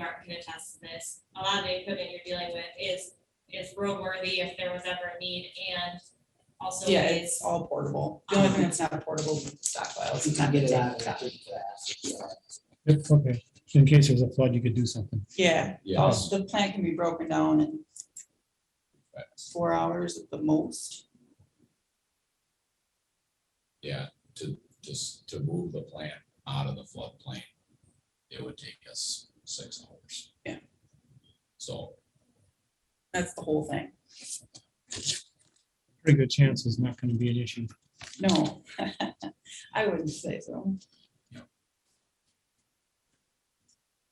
Art can attest to this, a lot of the equipment you're dealing with is, is roadworthy if there was ever a need and also Yeah, it's is, all portable. The only thing that's not portable is stockpiles. You can get it out of Yeah. there pretty fast. if you are. Yep, okay, in case there's a flood, you could do something. Yeah, Yes. the plant can be broken down in four hours at the most. Yeah, to, just to move the plant out of the floodplain, it would take us six hours. Yeah. So, That's the whole thing. Pretty good chance it's not gonna be an issue. No, I wouldn't say so.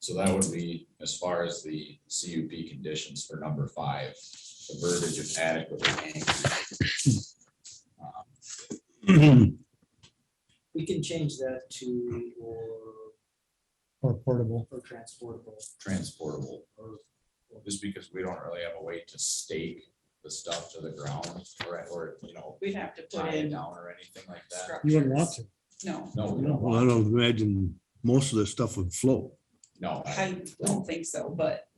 so that would be as far as the CUP conditions for number five, the verbiage of adequately anchored. Um, We can change that to or, Or portable, or transportable. Transportable, or- just because we don't really have a way to stake the stuff to the ground, or, or, you know, We'd have to tie put it in down or anything like that. you wouldn't want to. No, No, we don't Well, I want, don't imagine most of this stuff would float. no, I- I don't think so, but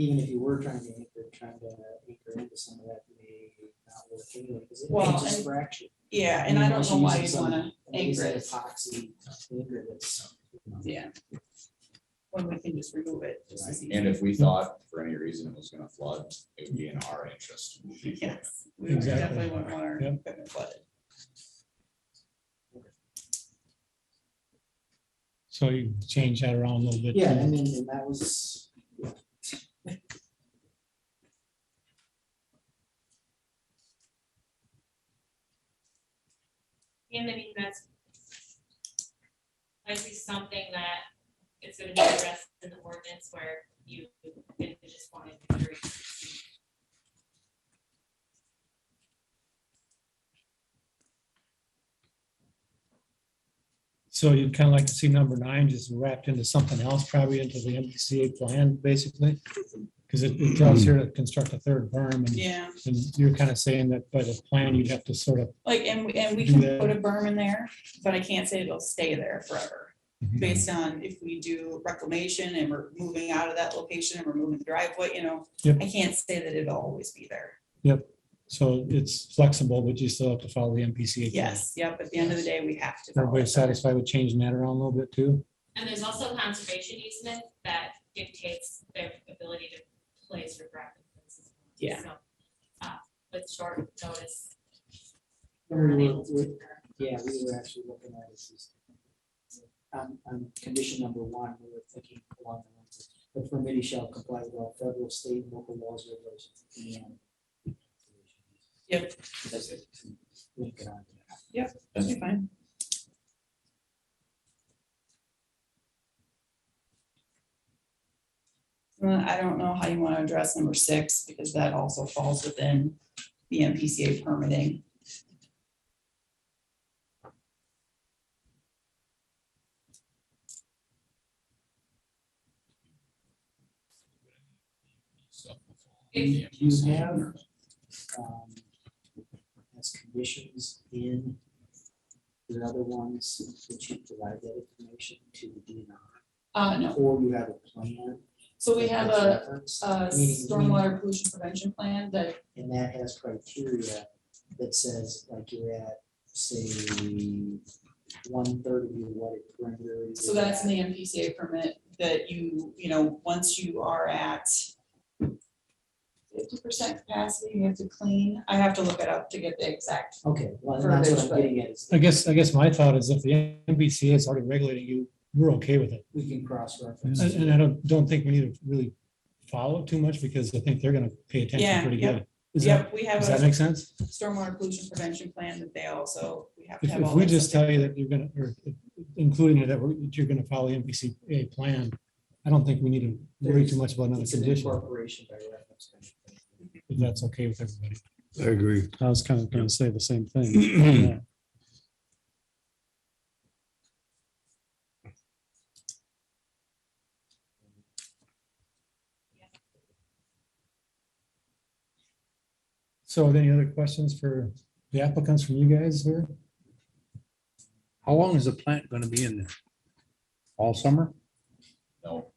Even if you were trying to anchor, trying to anchor into some of that may not work anyway, because it may Well, just and- fracture. yeah, and I don't Unless know you why use you'd some wanna anchor amazing it. Epoxy anchor that's. you know, Yeah. When we can just remove it. just as easy. and if we thought for any reason it was gonna flood, it would be in our interest. Yes, we would Exactly. definitely wouldn't want our Yep. equipment flooded. So you change that around a little bit. Yeah, I mean, and that was, and I mean, that's likely something that it's gonna be addressed in the ordinance where you you just wanted to. So you'd kinda like to see number nine just wrapped into something else, probably into the MPCA plan, basically. Cause it draws here to construct a third berm, and, Yeah, and you're kinda saying that by the plan, you'd have to sort of, like, and, and we Do can that. put a berm in there, but I can't say it'll stay there forever. Mhm. Based on if we do reclamation and we're moving out of that location and we're moving the driveway, you know, Yep. I can't say that it'll always be there. so it's flexible, but you still have to follow the MPCA. plan. Yes, yep, at the end of the day, we have to. follow Everybody it. satisfied with changing that around a little bit too? And there's also conservation easement that dictates their ability to place regret. Yeah. So, uh, with short notice. we were, unable to we- do that. yeah, we were actually looking at this as. On, on um, condition number one, we were thinking along the lines of, the permittee shall comply with all federal, state, and local laws, regulations, and. Yep. That's it. Link it on to that. That'd be fine. Well, I don't know how you want to address number six, because that also falls within the MPCA permitting. So, If you have, um, as conditions in the other ones, that you provide that information to the DNR? Uh, no, Or you have a plan? so we that have that's a, referenced, a meaning- stormwater pollution prevention plan that, And that has criteria that says, like, you're at, say, one third of your water perimeter. you're so that's in at- the MPCA permit, that you, you know, once you are at fifty percent capacity, you have to clean, I have to look it up to get the exact Okay, well, and that's what Verbiage, I'm but- getting at, is I guess, I guess my thought is if the MBCA is already regulating you, we're okay with it. we can cross-reference. And and I don't, don't think we need to really follow it too much because I think they're gonna pay Yeah, attention pretty yep. good. Is that, Yep, we does have that a make sense? stormwater pollution prevention plan that they also, we have to If, have all. if we that just stuff. tell you that you're gonna, or including it, that we're- that you're gonna follow the MPCA plan, I don't think we need to worry too much about another It's an condition, incorporation by reference. kind of thing. if that's okay with everybody. I agree. I was kind of gonna say the same thing. So are there any other questions for the applicants from you guys here? How long is the plant gonna be in there? All summer? No,